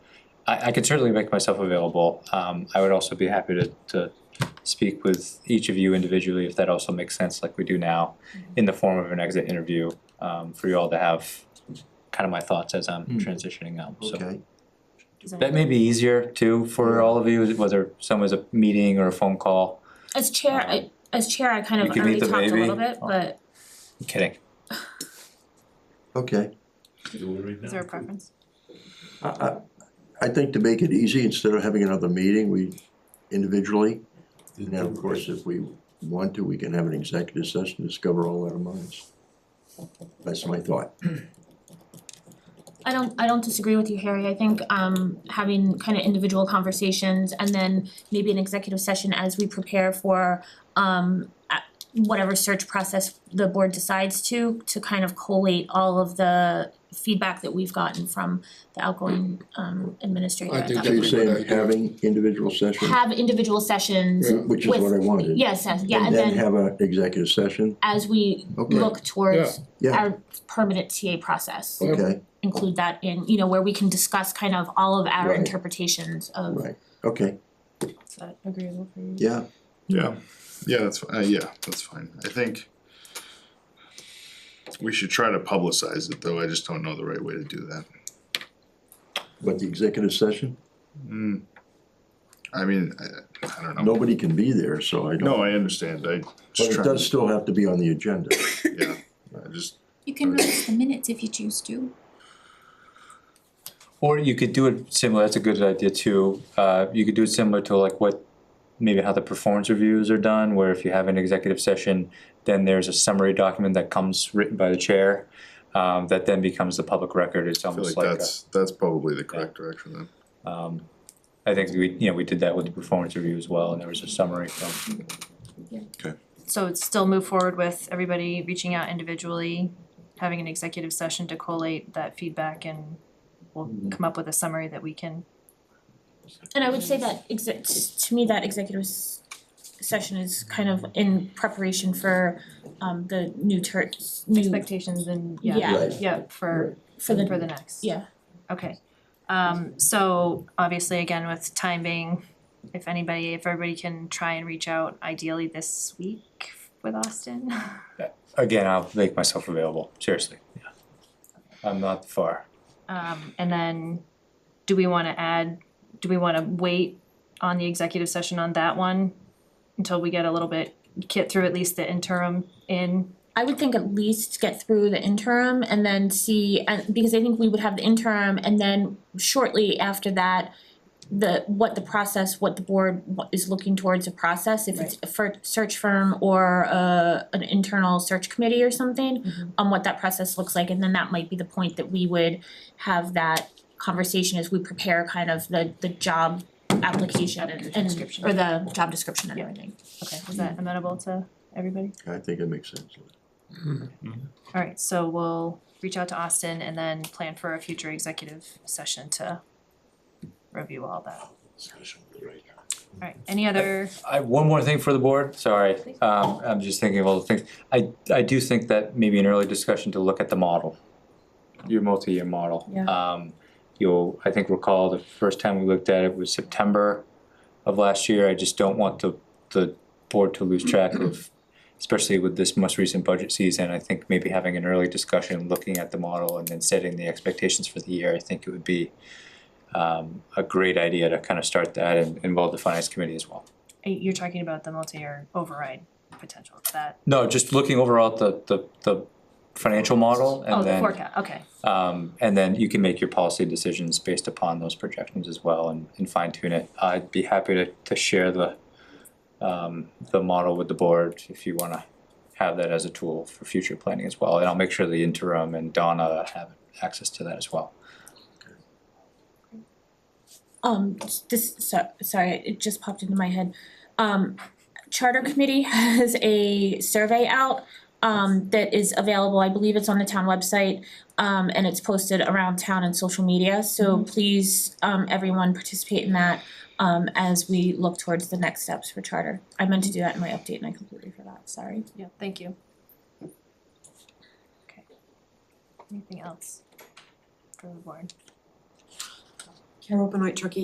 I, I could certainly make myself available. Um, I would also be happy to, to speak with each of you individually if that also makes sense, like we do now, in the form of an exit interview, um, for you all to have kind of my thoughts as I'm transitioning out, so. Okay, That may be easier too for all of you, whether some is a meeting or a phone call. As chair, I, as chair, I kind of Uh, You can meet already the talked a little baby. bit, but I'm Kidding. okay. Is there a preference? I, I, I think to make it easy, instead of having another meeting, we individually, and then of course, if we want to, we can have an executive session, to discover all our minds. That's my thought. I don't, I don't disagree with you, Harry. I think um having kind of individual conversations and then maybe an executive session as we prepare for um a- whatever search process the board decides to, to kind of collate all of the feedback that we've gotten from the outgoing um administrator I at think that So you're point. that's- a saying good idea. having individual sessions, Have individual sessions, Yeah. which is what I wanted. yes, yes, yeah, And and then then have an executive session, as we Okay. look towards yeah, our permanent TA process. okay, include that in, you know, where we can discuss kind of all of our Right. interpretations of. right, okay, Is that agreeable for you? yeah, Yeah, yeah, that's, uh, yeah, that's fine, I think. We should try to publicize it, though, I just don't know the right way to do that. but the executive session, Hmm. I mean, I, I don't know, nobody can be there, so I don't, no, I understand, I but just it try, does still have to be on the agenda. yeah, I just, You can release the minutes if you choose to. Or you could do it similar, that's a good idea too. Uh, you could do it similar to like what, maybe how the performance reviews are done, where if you have an executive session, then there's a summary document that comes written by the chair, um, that then becomes the public record. It's I feel almost like like a- that's, that's probably the correct direction then. Um, I think we, you know, we did that with the performance review as well, and there was a summary from, So it's still move forward with everybody reaching out individually, having an executive session to collate that feedback and we'll come up with a summary that we can. And I would say that exec, to me, that executive s- session is kind of in preparation for um the new ter- new, Expectations and, Mm-hmm. Yeah. yeah, Right. yeah, for, for the, for the next. yeah, Okay, um, so obviously again with time being, if anybody, if everybody can try and reach out ideally this week with Austin. again, I'll make myself available, seriously, yeah. I'm not far. Um, and then, do we wanna add, do we wanna wait on the executive session on that one? Until we get a little bit, get through at least the interim in, I would think at least get through the interim and then see, and because I think we would have the interim and then shortly after that, the, what the process, what the board wa- is looking towards a process, if it's a fir- search firm or a, an internal search committee or something, on what that process looks like, and then that might be the point that we would have that conversation as we prepare kind of the, the job application and, and, description. or the job description and everything. okay, is that amenable to everybody? I think it makes sense. Alright, so we'll reach out to Austin and then plan for a future executive session to review all that. Alright, any other, I, one more thing for the board, sorry, um, I'm just thinking of all the things. I, I do think that maybe an early discussion to look at the model, your multi-year model. Yeah. Um, you'll, I think recall the first time we looked at it was September of last year, I just don't want the, the board to lose track of, especially with this most recent budget season, I think maybe having an early discussion, looking at the model and then setting the expectations for the year, I think it would be um, a great idea to kind of start that and involve the finance committee as well. you're talking about the multi-year override potential, is that, No, just looking overall at the, the, the financial model oh, and the then, forecast, okay, um, and then you can make your policy decisions based upon those projections as well and, and fine tune it. I'd be happy to, to share the, um, the model with the board if you wanna have that as a tool for future planning as well. And I'll make sure the interim and Donna have access to that as well. Um, this, so, sorry, it just popped into my head. Um, Charter Committee has a survey out, um, that is available, I believe it's on the town website. Um, and it's posted around town and social media, so please, um, everyone participate in that, um, as we look towards the next steps for charter. I meant to do that in my update and I completely forgot, sorry. yeah, thank you. Okay, anything else for the board? They're open white turkey.